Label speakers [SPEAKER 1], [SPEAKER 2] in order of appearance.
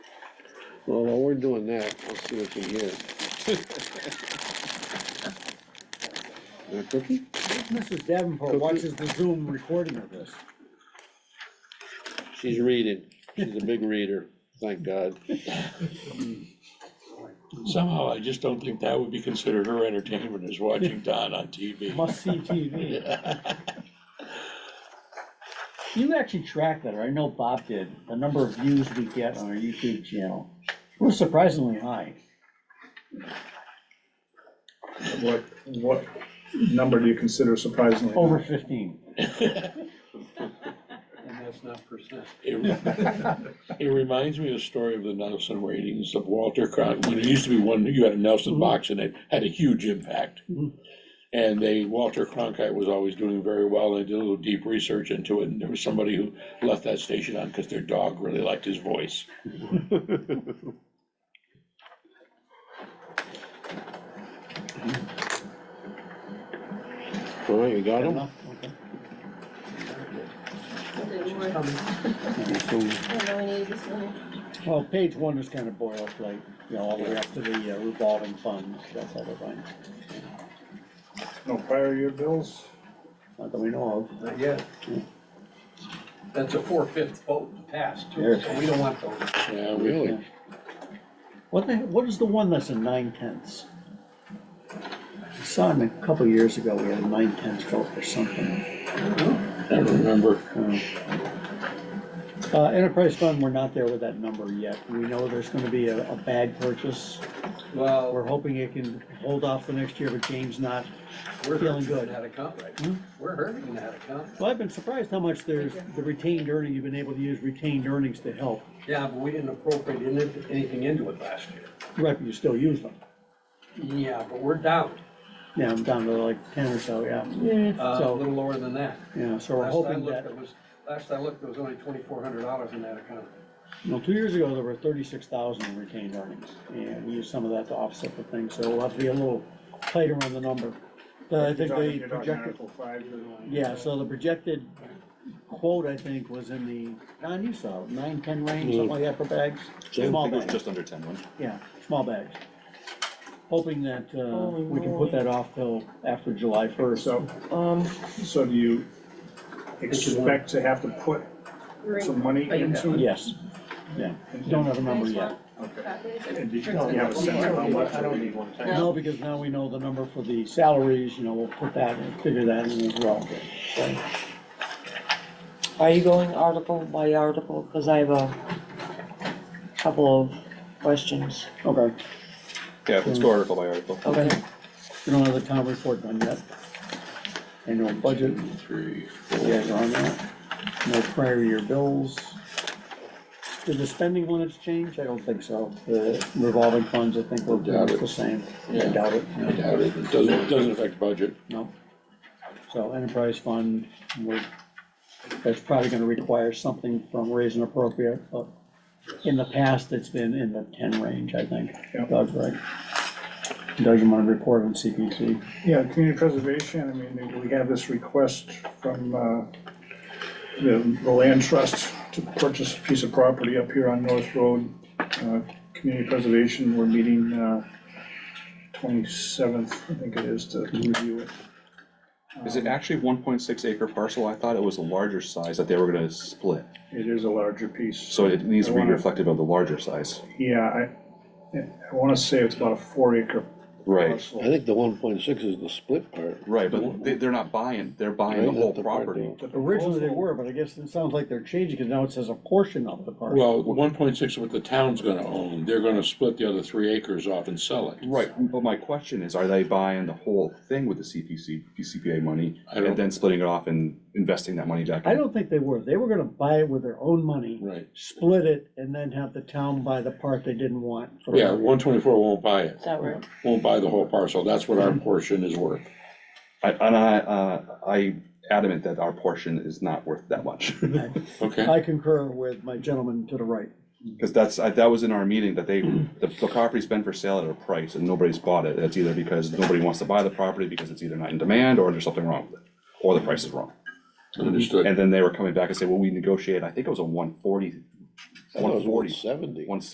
[SPEAKER 1] Well, while we're doing that, I'll see what's in here. Want a cookie?
[SPEAKER 2] Mrs. Davenport watches the Zoom recording of this.
[SPEAKER 1] She's reading. She's a big reader, thank God.
[SPEAKER 3] Somehow, I just don't think that would be considered her entertainment, is watching Don on TV.
[SPEAKER 2] Must see TV. You actually track that, or I know Bob did, the number of views we get on our YouTube channel. We're surprisingly high.
[SPEAKER 4] What, what number do you consider surprisingly?
[SPEAKER 2] Over fifteen.
[SPEAKER 5] And that's not percent.
[SPEAKER 3] It it reminds me of the story of the Nelson ratings of Walter Cronkite. When it used to be one, you had a Nelson box and it had a huge impact. And they, Walter Cronkite was always doing very well. and I did a little deep research into it and there was somebody who left that station on because their dog really liked his voice.
[SPEAKER 1] All right, you got them?
[SPEAKER 2] enough? Okay.
[SPEAKER 6] we need this one.
[SPEAKER 2] Well, page one is kind of boilerplate, you know, all the way up to the uh, revolving funds, that's all the thing,
[SPEAKER 4] No prior year bills?
[SPEAKER 2] not that we know
[SPEAKER 5] Not yet. That's a four-fifth vote to pass, too,
[SPEAKER 2] Yes.
[SPEAKER 5] so we don't want those.
[SPEAKER 3] Yeah, we-
[SPEAKER 1] Really?
[SPEAKER 2] of. What the, what is the one that's in nine tenths? I saw him a couple years ago, we had a nine tenths vote for something.
[SPEAKER 3] I remember.
[SPEAKER 2] Uh, enterprise fund, we're not there with that number yet, we know there's gonna be a, a bag purchase,
[SPEAKER 5] Well,
[SPEAKER 2] we're hoping it can hold off for next year, but James not.
[SPEAKER 5] we're
[SPEAKER 2] feeling
[SPEAKER 5] feeling
[SPEAKER 2] good.
[SPEAKER 5] good out of comp right
[SPEAKER 2] Hmm?
[SPEAKER 5] now. We're hurting out of comp.
[SPEAKER 2] Well, I've been surprised how much there's, the retained earning, you've been able to use retained earnings to help,
[SPEAKER 5] Yeah, but we didn't appropriate any- anything into it last year.
[SPEAKER 2] right, but you still use them.
[SPEAKER 5] Yeah, but we're down,
[SPEAKER 2] Yeah, I'm down to like ten or so, yeah.
[SPEAKER 5] uh, a
[SPEAKER 2] So,
[SPEAKER 5] little lower than that.
[SPEAKER 2] yeah, so we're
[SPEAKER 5] Last I
[SPEAKER 2] hoping
[SPEAKER 5] looked,
[SPEAKER 2] that,
[SPEAKER 5] it was, last I looked, there was only twenty-four hundred dollars in that account.
[SPEAKER 2] well, two years ago, there were thirty-six thousand retained earnings, and we used some of that to offset the thing, so we'll have to be a little tighter on the number. But Uh, I
[SPEAKER 4] You're
[SPEAKER 2] think
[SPEAKER 4] talking-
[SPEAKER 2] they
[SPEAKER 4] you're talking
[SPEAKER 2] projected,
[SPEAKER 4] Article five, you're going-
[SPEAKER 2] yeah, so the projected quote, I think, was in the, Don, you saw, it, nine, ten range, something like that for bags,
[SPEAKER 7] I
[SPEAKER 2] small
[SPEAKER 7] think it was
[SPEAKER 2] bags,
[SPEAKER 7] just under ten one.
[SPEAKER 2] yeah, small bags. Hoping that, uh,
[SPEAKER 8] Holy
[SPEAKER 2] we can put
[SPEAKER 8] moly.
[SPEAKER 2] that off till after July first.
[SPEAKER 4] So,
[SPEAKER 8] Um,
[SPEAKER 4] so do you expect to have to put some money
[SPEAKER 8] Oh, you
[SPEAKER 4] into? it?
[SPEAKER 2] Yes, yeah, don't have a number yet.
[SPEAKER 4] Okay.
[SPEAKER 6] Okay.
[SPEAKER 4] And do you do you have a sense of how much?
[SPEAKER 2] I don't
[SPEAKER 4] need one.
[SPEAKER 2] No, because now we know the number for the salaries, you know, we'll put that and figure that in as well.
[SPEAKER 8] are you going article by article? Cause I have a couple of questions.
[SPEAKER 2] Okay,
[SPEAKER 7] Yeah, let's go article by article.
[SPEAKER 8] Okay,
[SPEAKER 2] we don't have the town report done yet. Annual budget,
[SPEAKER 3] Three,
[SPEAKER 2] you guys are on that. No prior year bills. Did the spending limits change? I don't think so. The revolving funds, I think, were pretty much the same. I doubt it.
[SPEAKER 3] I doubt it. It doesn't, it doesn't affect budget.
[SPEAKER 2] No. So enterprise fund, we're, that's probably gonna require something from raise and appropriate, but in the past, it's been in the ten range, I think.
[SPEAKER 4] Yeah.
[SPEAKER 2] Doug's right. Doug, you wanna report on CPC?
[SPEAKER 4] Yeah, community preservation, I mean, we have this request from, uh, the, the land trust to purchase a piece of property up here on North Road. Uh, Community preservation, we're meeting, uh, twenty-seventh, I think it is, to to review it.
[SPEAKER 7] Is it actually one point six acre parcel? I thought it was a larger size that they were gonna split.
[SPEAKER 4] It is a larger piece.
[SPEAKER 7] So it needs to
[SPEAKER 4] I
[SPEAKER 7] be
[SPEAKER 4] wanna-
[SPEAKER 7] reflective of the larger size.
[SPEAKER 4] Yeah, I, I wanna say it's about a four acre
[SPEAKER 7] Right,
[SPEAKER 4] parcel.
[SPEAKER 1] I think the one point six is the split part.
[SPEAKER 7] right, but they, they're not buying, they're buying the
[SPEAKER 1] Right,
[SPEAKER 7] whole
[SPEAKER 1] that's the part
[SPEAKER 7] property.
[SPEAKER 4] The
[SPEAKER 2] Originally they
[SPEAKER 4] proposal-
[SPEAKER 2] were, but I guess it sounds like they're changing, cause now it says a portion of the parcel.
[SPEAKER 3] Well, one point six what the town's gonna own, they're gonna split the other three acres off and sell it.
[SPEAKER 7] Right, but my question is, are they buying the whole thing with the CPC, CPA money?
[SPEAKER 3] I don't-
[SPEAKER 7] And then splitting it off and investing that money back?
[SPEAKER 2] I
[SPEAKER 7] in?
[SPEAKER 2] don't think they were, they were gonna buy it with their own money,
[SPEAKER 3] Right,
[SPEAKER 2] split it, and then have the town buy the part they didn't want. for-
[SPEAKER 3] yeah, one twenty-four won't buy it,
[SPEAKER 8] is that right?
[SPEAKER 3] won't buy the whole parcel, that's what our portion is worth.
[SPEAKER 7] I, and I, uh, I adamant that our portion is not worth that much.
[SPEAKER 3] Okay,
[SPEAKER 2] I concur with my gentleman to the right.
[SPEAKER 7] Because that's, I- that was in our meeting, that they, the the property's been for sale at a price and nobody's bought it. That's either because nobody wants to buy the property because it's either not in demand or there's something wrong with it, or the price is wrong.
[SPEAKER 3] understood.
[SPEAKER 7] And then they were coming back and saying, well, we negotiated, I think it was a 140,
[SPEAKER 1] I thought it was
[SPEAKER 7] 140,
[SPEAKER 1] seventy.
[SPEAKER 7] 160.